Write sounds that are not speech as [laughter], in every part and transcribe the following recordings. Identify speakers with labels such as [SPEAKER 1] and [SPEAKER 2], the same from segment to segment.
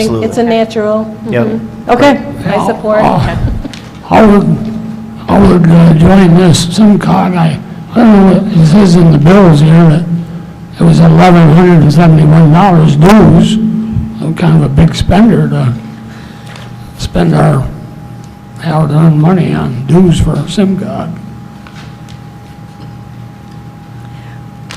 [SPEAKER 1] Absolutely.
[SPEAKER 2] It's a natural.
[SPEAKER 1] Yep.
[SPEAKER 2] Okay,
[SPEAKER 3] Oh.
[SPEAKER 2] I support.
[SPEAKER 3] I would, I would uh, join this, some card, I, I don't know what it says in the bills here, that it was eleven hundred and seventy-one dollars dues. I'm kind of a big spender to spend our hard-earned money on dues for a SIM card.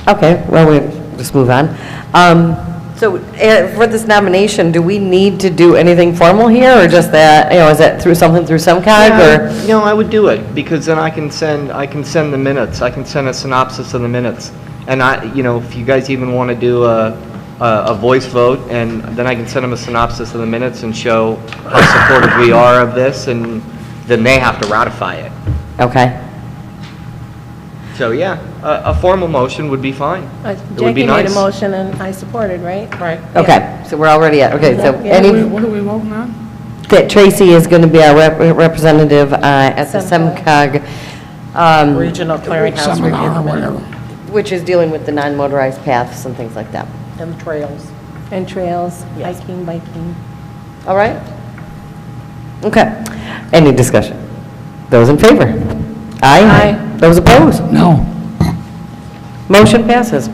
[SPEAKER 4] Okay, well, we, just move on. Um, So eh, for this nomination, do we need to do anything formal here, or just that, you know, is that through something through SEMCOG, or?
[SPEAKER 5] Yeah, No, I would do it, because then I can send, I can send the minutes, I can send a synopsis of the minutes. And I, you know, if you guys even want to do a, a a voice vote, and then I can send them a synopsis of the minutes and show how supportive we are of this, and then they have to ratify it.
[SPEAKER 4] Okay.
[SPEAKER 5] So, yeah, a, a formal motion would be fine.
[SPEAKER 2] Uh,
[SPEAKER 5] It would be
[SPEAKER 2] Jackie made a
[SPEAKER 5] nice.
[SPEAKER 2] motion and I supported, right? Right.
[SPEAKER 4] Okay, so we're already at, okay, so
[SPEAKER 2] Yeah.
[SPEAKER 3] Wait,
[SPEAKER 4] any,
[SPEAKER 3] What are we voting on?
[SPEAKER 4] that Tracy is going to be our rep- representative uh, at the
[SPEAKER 2] SEMCOG.
[SPEAKER 4] SEMCOG, um,
[SPEAKER 6] Regional Clearinghouse Review
[SPEAKER 3] Seminar or
[SPEAKER 6] Committee
[SPEAKER 3] whatever.
[SPEAKER 4] which is dealing with the non-motorized paths and things like that.
[SPEAKER 6] and the trails.
[SPEAKER 2] And trails,
[SPEAKER 6] Yes.
[SPEAKER 2] hiking, biking.
[SPEAKER 4] All right? Okay. Any discussion? Those in favor?
[SPEAKER 2] Aye.
[SPEAKER 4] Aye. Those opposed?
[SPEAKER 3] No.
[SPEAKER 4] Motion passes.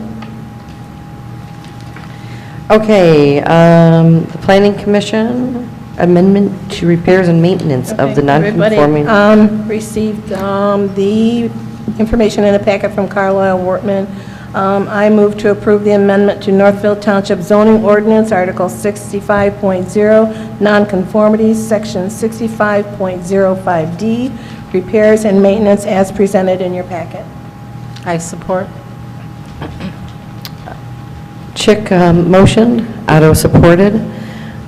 [SPEAKER 4] Okay, um, the Planning Commission, amendment to repairs and maintenance of the non-conforming.
[SPEAKER 2] Everybody um, received um, the information in a packet from Carlisle Wortman. Um, I move to approve the amendment to Northfield Township zoning ordinance, Article 65.0, nonconformities, Section 65.05D, repairs and maintenance as presented in your packet.
[SPEAKER 6] I support.
[SPEAKER 4] Chick um, motioned, Otto supported.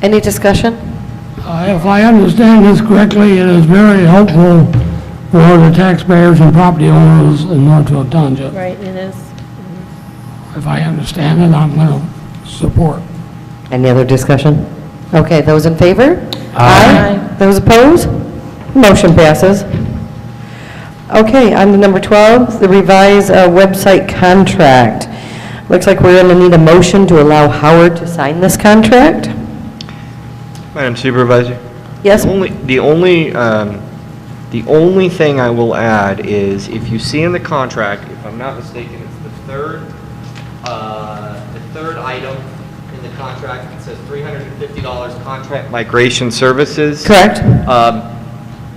[SPEAKER 4] Any discussion?
[SPEAKER 3] Uh, If I understand this correctly, it is very helpful for the taxpayers and property owners in Northfield Township.
[SPEAKER 2] Right, it is.
[SPEAKER 3] If I understand it, I'm going to support.
[SPEAKER 4] Any other discussion? Okay, those in favor? Aye. Those opposed? Motion passes. Okay, on to number 12, the revised uh, website contract. Looks like we're going to need a motion to allow Howard to sign this contract.
[SPEAKER 5] Madam Supervisor?
[SPEAKER 4] Yes?
[SPEAKER 5] The only, the only, um, the only thing I will add is, if you see in the contract, if I'm not mistaken, it's the third, uh, the third item in the contract, it says $350 contract migration services.
[SPEAKER 4] Correct?
[SPEAKER 5] Um,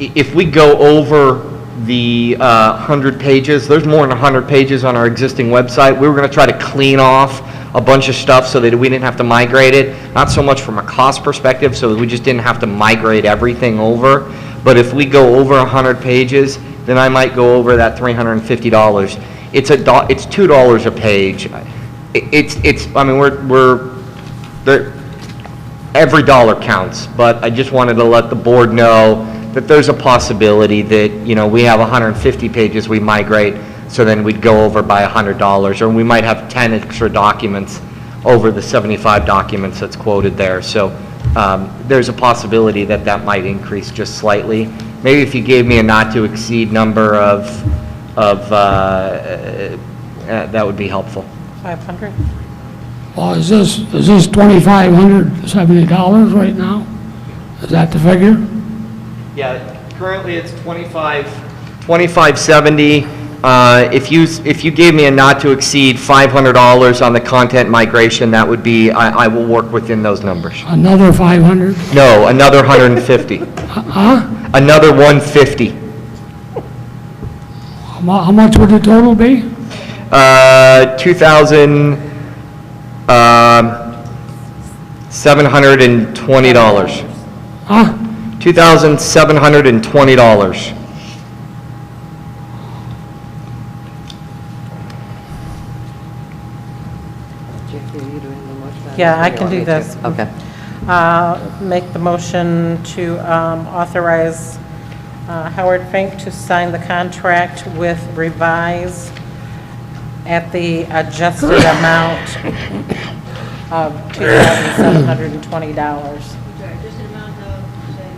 [SPEAKER 5] i- If we go over the uh, 100 pages, there's more than 100 pages on our existing website. We were going to try to clean off a bunch of stuff so that we didn't have to migrate it, not so much from a cost perspective, so we just didn't have to migrate everything over. But if we go over 100 pages, then I might go over that $350. It's a, do- it's $2 a page. I- It's, it's, I mean, we're, we're, there, every dollar counts, but I just wanted to let the board know that there's a possibility that, you know, we have 150 pages we migrate, so then we'd go over by $100, or we might have 10 extra documents over the 75 documents that's quoted there. So um, there's a possibility that that might increase just slightly. Maybe if you gave me a not-to-exceed number of, of, uh, uh, that would be helpful.
[SPEAKER 6] 500?
[SPEAKER 3] Well, is this, is this twenty-five hundred seventy dollars right now? Is that the figure?
[SPEAKER 5] Yeah, currently it's 25... 2570. Uh, If you, if you gave me a not to exceed $500 on the content migration, that would be, I, I will work within those numbers.
[SPEAKER 3] Another five hundred?
[SPEAKER 5] No, another 150. [laughs]
[SPEAKER 3] Huh?
[SPEAKER 5] Another 150.
[SPEAKER 3] How mu- how much would the total be?
[SPEAKER 5] Uh, 2,000, um, $720.
[SPEAKER 3] Huh?
[SPEAKER 5] $2,720.
[SPEAKER 6] Yeah, I can do this.
[SPEAKER 4] Okay.
[SPEAKER 6] Uh, Make the motion to um, authorize uh, Howard Fink to sign the contract with revise at the adjusted amount of $2,720.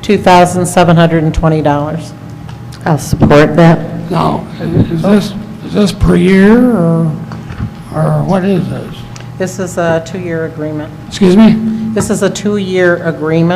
[SPEAKER 6] $2,720.
[SPEAKER 4] I'll support that.
[SPEAKER 3] Now, i- is this, is this per year, or, or what is this?
[SPEAKER 6] This is a two-year agreement.
[SPEAKER 3] Excuse me?
[SPEAKER 6] This is a two-year agreement.